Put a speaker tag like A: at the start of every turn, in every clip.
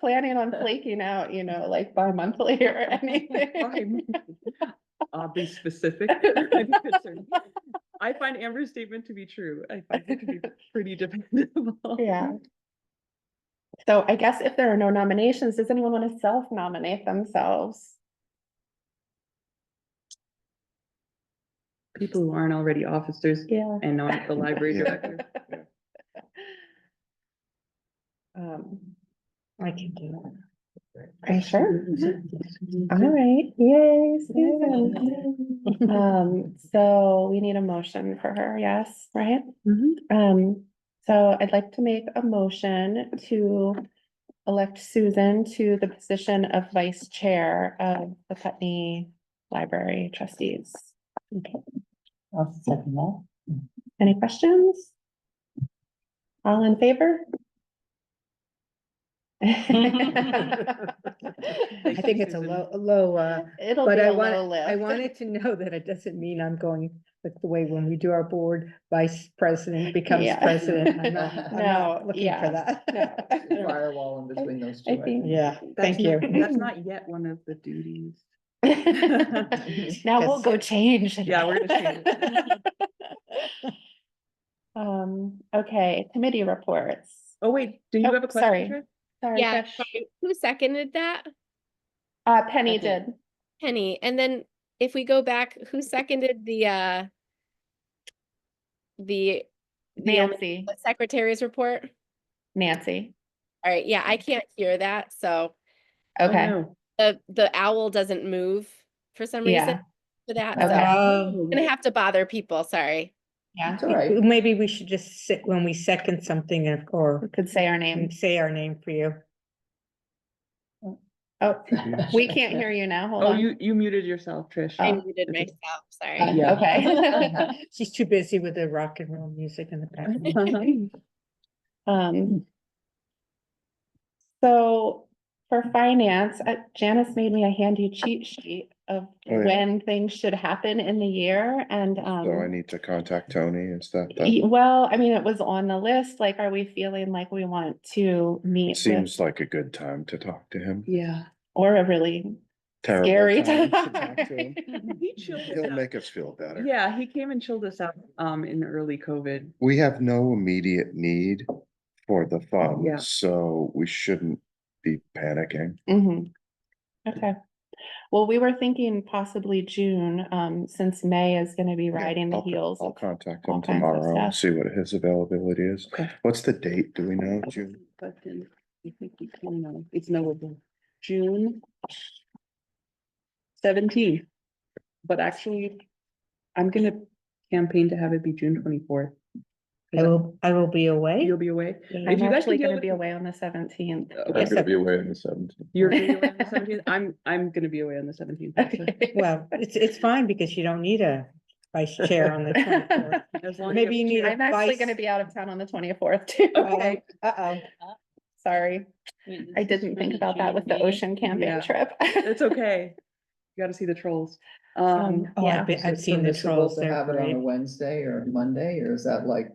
A: planning on flaking out, you know, like bi-monthly or anything.
B: Fine. I'll be specific. I find Amber's statement to be true. I find it to be pretty dependable.
A: Yeah. So I guess if there are no nominations, does anyone want to self-nominate themselves?
B: People who aren't already officers
A: Yeah.
B: and not the library director.
A: Um,
C: I can do that.
A: are you sure?
D: Mm-hmm.
A: All right, yay, Susan. Um, so we need a motion for her, yes, right?
B: Mhm.
A: Um, so I'd like to make a motion to elect Susan to the position of vice chair of the Putney Library Trustees.
C: I'll second that.
A: Any questions? All in favor?
C: I think it's a
B: Susan.
C: low, a low, uh,
A: It'll
C: But
A: be
C: I
A: a
C: want-
A: low lift.
C: I wanted to know that it doesn't mean I'm going, like the way when we do our board, vice president becomes
A: Yeah.
C: president. I'm not- I'm not
A: No,
C: Looking
A: yeah,
C: for that.
D: Firewall in between those two.
A: I think.
C: Yeah,
B: That's
C: thank
B: not-
C: you.
B: That's not yet one of the duties.
A: Now we'll
C: Yes.
A: go change. it.
B: Yeah, we're gonna change
A: Um, okay, committee reports.
B: Oh, wait, do
A: Oh,
B: you have a
A: sorry.
B: question? Trish?
A: Sorry,
E: Yeah,
A: Trish.
E: sorry. who seconded that?
A: Uh, Penny
C: I did.
A: did.
E: Penny. And then if we go back, who seconded the uh the the um,
A: Nancy,
E: secretary's report?
A: Nancy.
E: All right, yeah, I can't hear that, so
B: Oh,
A: Okay,
B: no.
E: the the owl doesn't move for some
A: Yeah.
E: reason for that, so
A: Okay.
E: I'm
C: Um,
E: gonna have to bother people, sorry.
A: yeah,
D: It's all right.
C: Maybe we should just sit when we second something and-
A: we
C: or
A: could say our
C: and
A: name.
C: say our name for you.
A: Oh, we can't hear you now. Hold
B: Oh,
A: on.
B: you, you muted yourself, Trish.
E: I
A: Oh,
E: muted
B: okay.
E: myself,
A: Uh,
E: sorry.
D: Yeah.
A: Okay.
C: She's too busy with the rock and roll music in the background.
A: Um. So for finance, uh, Janice made me a handy cheat sheet of
F: Oh, yeah.
A: when things should happen in the year and um.
F: So I need to contact Tony and stuff.
A: y-
F: That
A: Well, I mean, it was on the list, like, are we feeling like we want to meet with,
F: seems like a good time to talk to him.
B: Yeah.
A: or a really
F: Terrible
A: scary
F: time
A: time?
F: to talk to him.
B: He chilled us
F: He'll
B: out.
F: make us feel better.
B: Yeah, he came and chilled us out, um, in early COVID.
F: We have no immediate need for the
B: Yeah.
F: fund, so we shouldn't be panicking.
A: Mhm. Okay, well, we were thinking possibly June, um, since May is gonna be riding the
F: I'll-
A: heels.
F: I'll
A: of-
F: contact
A: all
F: him
A: kinds of
F: tomorrow and
A: stuff.
F: see what his availability is.
B: Okay.
F: What's the date? Do we know? June?
B: But then, I think we can, uh, it's knowable, June seventeenth. But actually, I'm gonna campaign to have it be June twenty-fourth.
C: I will, I will be away.
B: You'll be away?
A: I'm
B: If you guys
A: actually
B: can deal
A: gonna
B: with
A: be
B: the- Uh,
A: away on the seventeenth.
B: Okay,
C: gonna
F: be away on the seventeenth.
B: You're gonna be away on the seventeenth, I'm, I'm gonna be away on the seventeenth.
C: Well, it's, it's fine because you don't need a vice chair on the twenty-fourth. Maybe you need a
A: I'm actually
C: vice.
A: gonna be out of town on the twenty-fourth too.
B: Okay.
C: Uh-oh.
A: Sorry, I didn't think about that with the ocean
B: E. Yeah.
A: camping trip.
B: It's okay, you gotta see the trolls.
A: Um,
B: Um,
C: Oh,
A: yeah,
C: I've been,
D: Is
C: I've
D: it
C: seen the
D: permissible
C: trolls.
D: to
C: They're
D: Have it on
C: great.
D: a Wednesday or Monday, or is that like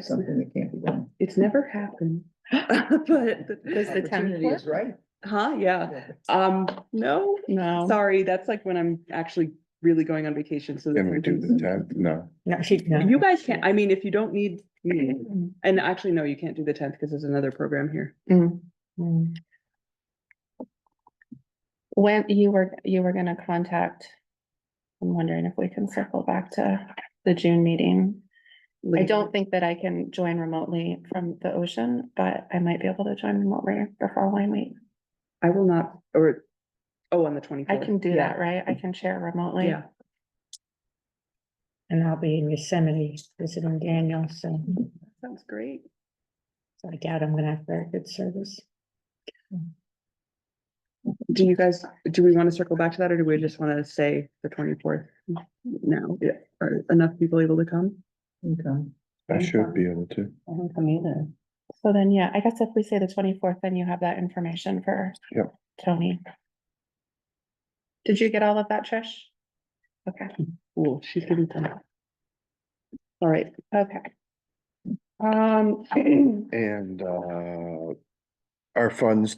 D: something that can't be done?
B: it's never happened. But.
A: Does the town
D: Opportunity
A: clerk?
D: is right.
B: Huh, yeah, um, no,
A: No.
B: Sorry, that's like when I'm actually really going on vacation, so.
F: Can we
B: that's when
F: do the tenth? No.
C: No, she, no.
B: things- You guys can't, I mean, if you don't need me,
A: Mm-hmm.
B: and actually, no, you can't do the tenth because there's another program here.
A: Mm.
C: Mm.
A: When you were, you were gonna contact, I'm wondering if we can circle back to the June meeting. I
B: later.
A: don't think that I can join remotely from the ocean, but I might be able to join remotely the following week.
B: I will not, or, oh, on the twenty-fourth.
A: I can do that, right? I can share remotely.
B: Yeah,
C: And I'll be in Yosemite visiting Daniel, so
B: sounds great.
C: so I doubt I'm gonna have very good service.
B: Do you guys, do we want to circle back to that, or do we just want to say the twenty-fourth now? Yeah, are enough people able to come?
D: Okay.
F: I should be able to.
B: I don't come either.
A: So then, yeah, I guess if we say the twenty-fourth, then you have that information for
F: Yep.
A: Tony. Did you get all of that, Trish? Okay,
B: Oh, she's gonna come. All right,
A: okay. Um,
F: And uh, our funds